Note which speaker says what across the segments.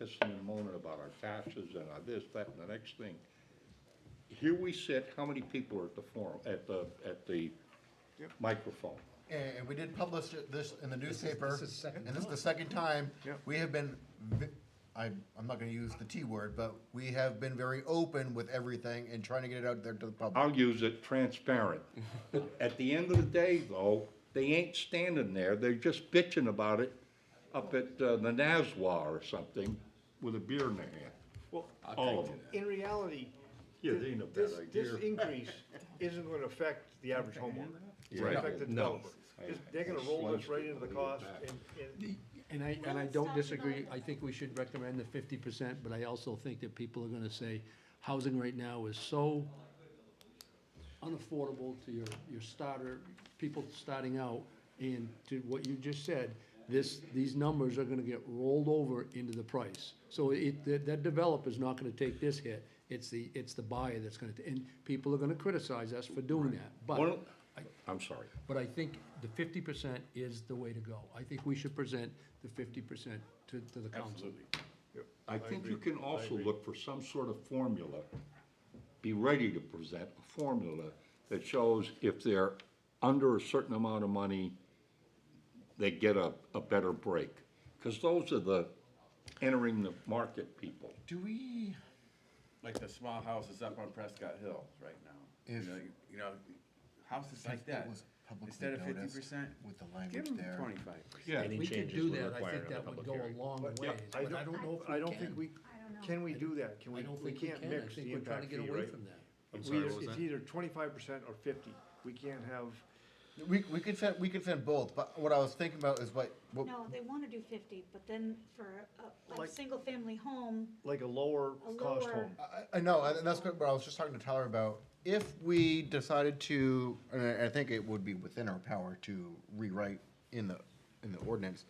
Speaker 1: pissing and moaning about our taxes and our this, that, and the next thing. Here we sit, how many people are at the forum, at the, at the microphone?
Speaker 2: And and we did publish it- this in the newspaper,
Speaker 3: this is second
Speaker 2: and this is the second time.
Speaker 4: Yep.
Speaker 2: We have been, ve- I, I'm not gonna use the T word, but we have been very open with everything and trying to get it out there to the public.
Speaker 1: I'll use it transparent. At the end of the day, though, they ain't standing there, they're just bitching about it up at uh, the Nazwa or something with a beer in their hand.
Speaker 4: Well,
Speaker 1: All of them.
Speaker 4: in reality,
Speaker 1: Yeah, they ain't a bad
Speaker 4: this, this
Speaker 1: idea.
Speaker 4: increase isn't gonna affect the average homeowner. It's
Speaker 1: Right.
Speaker 4: gonna affect the
Speaker 3: No.
Speaker 4: developer. This- They're gonna roll this right into the cost and, and
Speaker 5: And I, and I don't disagree, I think we should recommend the fifty percent, but I also think that people are gonna say, housing right now is so unaffordable to your, your starter, people starting out, and to what you just said, this, these numbers are gonna get rolled over into the price. So it, that, that developer's not gonna take this hit, it's the, it's the buyer that's gonna, and people are gonna criticize us for doing that, but.
Speaker 1: One of- I'm sorry.
Speaker 5: But I think the fifty percent is the way to go. I think we should present the fifty percent to, to the council.
Speaker 1: I think you can also look for some sort of formula, be ready to present a formula that shows if they're under a certain amount of money, they get a, a better break. Because those are the entering the market people.
Speaker 6: Do we, like the small houses up on Prescott Hill right now? You
Speaker 2: If-
Speaker 6: know, You know, houses like that, instead of fifty percent,
Speaker 2: With the
Speaker 6: give
Speaker 2: language
Speaker 6: them
Speaker 2: there.
Speaker 6: twenty-five percent.
Speaker 1: Yeah.
Speaker 5: We could do that, I think that would go a long ways,
Speaker 4: I
Speaker 5: but I don't know if we
Speaker 4: I don't
Speaker 5: can.
Speaker 4: think we, can we do that? Can
Speaker 5: I
Speaker 4: we,
Speaker 5: don't
Speaker 4: we
Speaker 5: think we
Speaker 4: can't
Speaker 5: can, I
Speaker 4: mix
Speaker 5: think
Speaker 4: the
Speaker 5: we're trying to
Speaker 4: impact
Speaker 5: get
Speaker 4: fee,
Speaker 5: away
Speaker 4: right?
Speaker 5: from that.
Speaker 4: We either- It's either twenty-five percent or fifty. We can't have,
Speaker 2: We, we could send, we could send both, but what I was thinking about is what, what,
Speaker 7: No, they wanna do fifty, but then for a, a
Speaker 4: Like-
Speaker 7: single-family home,
Speaker 4: like, a lower
Speaker 7: A
Speaker 4: cost
Speaker 7: lower-
Speaker 4: home.
Speaker 2: I, I know, and that's what I was just talking to Tyler about. If we decided to, and I, I think it would be within our power to rewrite in the, in the ordinance,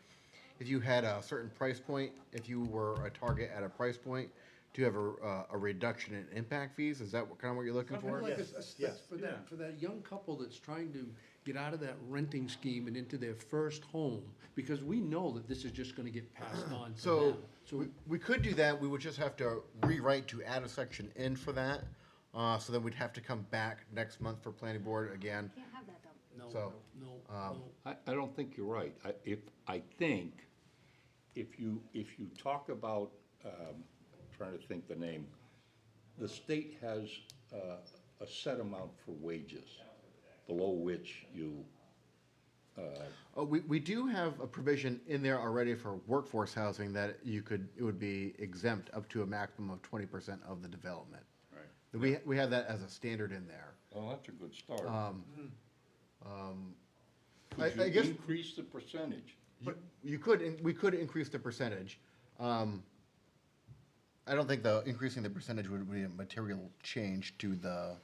Speaker 2: if you had a certain price point, if you were a target at a price point, do you have a, uh, a reduction in impact fees? Is that what, kind of what you're looking for?
Speaker 5: Like, it's-
Speaker 4: Yes,
Speaker 5: it's-
Speaker 4: yes,
Speaker 5: For that, for that young couple that's trying to get out of that renting scheme and into their first home, because we know that this is just gonna get passed on to
Speaker 2: So,
Speaker 5: them. So
Speaker 2: we, we could do that, we would just have to rewrite to add a section in for that. Uh, so then we'd have to come back next month for planning board again.
Speaker 7: can't have that though.
Speaker 5: No,
Speaker 2: So,
Speaker 5: no, no.
Speaker 1: I, I don't think you're right. I, if, I think if you, if you talk about, um, trying to think the name, the state has, uh, a set amount for wages below which you,
Speaker 2: Oh, we, we do have a provision in there already for workforce housing that you could, it would be exempt up to a maximum of twenty percent of the development. Right. We, we have that as a standard in there.
Speaker 1: well, that's a good start. Um,
Speaker 2: Hmm. I,
Speaker 1: Could
Speaker 2: I
Speaker 1: you
Speaker 2: guess
Speaker 1: increase the percentage?
Speaker 2: you, you could, in- we could increase the percentage. Um, I don't think the, increasing the percentage would be a material change to the,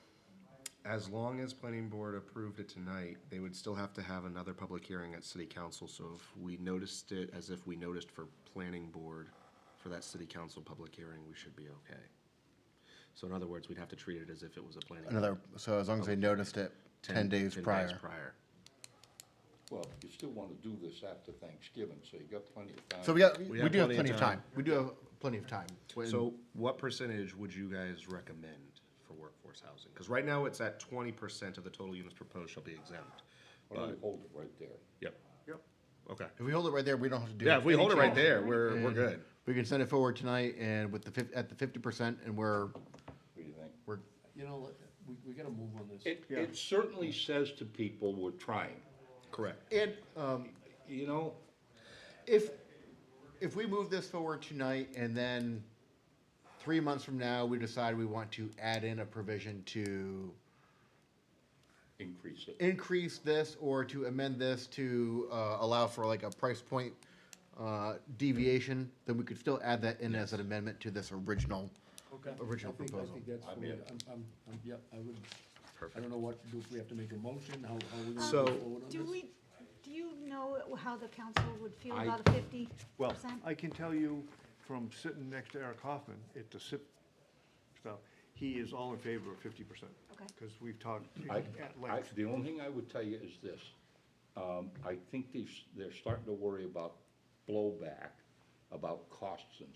Speaker 3: As long as planning board approved it tonight, they would still have to have another public hearing at city council, so if we noticed it as if we noticed for planning board for that city council public hearing, we should be okay. So in other words, we'd have to treat it as if it was a planning.
Speaker 2: another, so as long as they noticed it ten days
Speaker 3: 10
Speaker 2: prior.
Speaker 3: Prior.
Speaker 1: Well, you still wanna do this after Thanksgiving, so you got plenty of time.
Speaker 2: So we got,
Speaker 3: We
Speaker 2: we
Speaker 3: have
Speaker 2: do have
Speaker 3: plenty of
Speaker 2: plenty of
Speaker 3: time.
Speaker 2: time, we do have plenty of time. When-
Speaker 3: So what percentage would you guys recommend for workforce housing? Because right now it's at twenty percent of the total units proposed shall be exempt.
Speaker 1: Why don't we hold it right there?
Speaker 3: Yep.
Speaker 4: Yep.
Speaker 3: Okay.
Speaker 2: If we hold it right there, we don't have to do.
Speaker 3: Yeah, if we
Speaker 2: any
Speaker 3: hold it right
Speaker 2: changes.
Speaker 3: there, we're, we're
Speaker 2: And
Speaker 3: good.
Speaker 2: We can send it forward tonight and with the fif- at the fifty percent and we're,
Speaker 1: What do you think?
Speaker 2: we're,
Speaker 5: you know, let- we, we gotta move on this.
Speaker 1: It, it certainly says to people, we're trying,
Speaker 3: Correct.
Speaker 2: and, um,
Speaker 1: you know?
Speaker 2: if, if we move this forward tonight and then three months from now, we decide we want to add in a provision to
Speaker 1: Increase it.
Speaker 2: increase this or to amend this to, uh, allow for like a price point, uh, deviation, then we could still add that in as an amendment to this original, original
Speaker 5: I think- I
Speaker 2: proposal.
Speaker 5: think that's,
Speaker 1: I'm
Speaker 5: fine.
Speaker 1: in.
Speaker 5: I'm, I'm, I'm, yep, I would, I don't know what, do we have to make a motion, how, how are we
Speaker 3: So-
Speaker 5: gonna move forward on
Speaker 7: Do
Speaker 5: this?
Speaker 7: we, do you know how the council would feel
Speaker 1: I-
Speaker 7: about a fifty
Speaker 4: Well,
Speaker 7: percent?
Speaker 4: I can tell you from sitting next to Eric Hoffman at the SIP stuff, he is all in favor of fifty percent.
Speaker 7: Okay.
Speaker 4: Because we've talked
Speaker 1: I,
Speaker 4: at
Speaker 1: I,
Speaker 4: length.
Speaker 1: the only thing I would tell you is this, um, I think they, s- they're starting to worry about blowback, about costs and